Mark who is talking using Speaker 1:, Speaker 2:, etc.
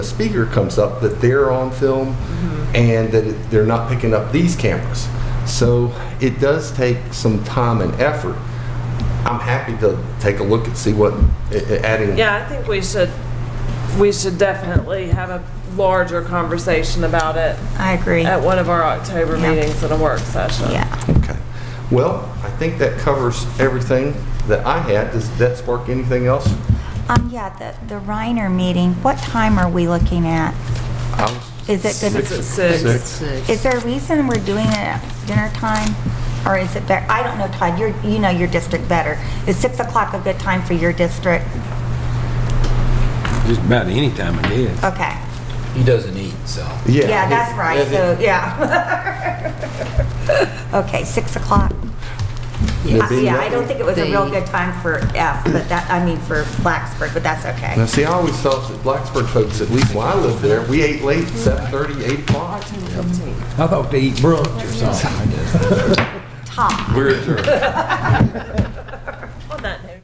Speaker 1: a speaker comes up that they're on film
Speaker 2: Mm-hmm.
Speaker 1: and that it- they're not picking up these cameras. So it does take some time and effort. I'm happy to take a look and see what i- i- adding.
Speaker 3: Yeah, I think we should, we should definitely have a larger conversation about it
Speaker 2: I agree.
Speaker 3: at one of our October
Speaker 2: Yeah.
Speaker 3: meetings in a work session.
Speaker 2: Yeah.
Speaker 1: Okay. Well, I think that covers everything that I had. Does that spark anything else?
Speaker 2: Um, yeah, the, the Reiner meeting, what time are we looking at?
Speaker 1: I was-
Speaker 2: Is it good?
Speaker 3: It's at six.
Speaker 2: Is there a reason we're doing it at dinner time? Or is it better, I don't know, Todd, you're, you know your district better. Is six o'clock a good time for your district?
Speaker 4: Just about any time of day.
Speaker 2: Okay.
Speaker 5: He doesn't eat, so.
Speaker 1: Yeah.
Speaker 2: Yeah, that's right,
Speaker 5: If
Speaker 2: so,
Speaker 5: it-
Speaker 2: yeah. Okay, six o'clock.
Speaker 1: There
Speaker 2: Uh,
Speaker 1: being
Speaker 2: Yeah, I
Speaker 1: no-
Speaker 2: don't think it was a real
Speaker 6: They-
Speaker 2: good time for F, but that, I mean, for Blacksburg, but that's
Speaker 1: Now,
Speaker 2: okay.
Speaker 1: see, I always thought that Blacksburg folks, at least when I lived there, we ate late, 7:30, 8 o'clock.
Speaker 4: I thought they eat brunch or something.
Speaker 2: Tom,
Speaker 5: We're adjourned.
Speaker 3: On that note.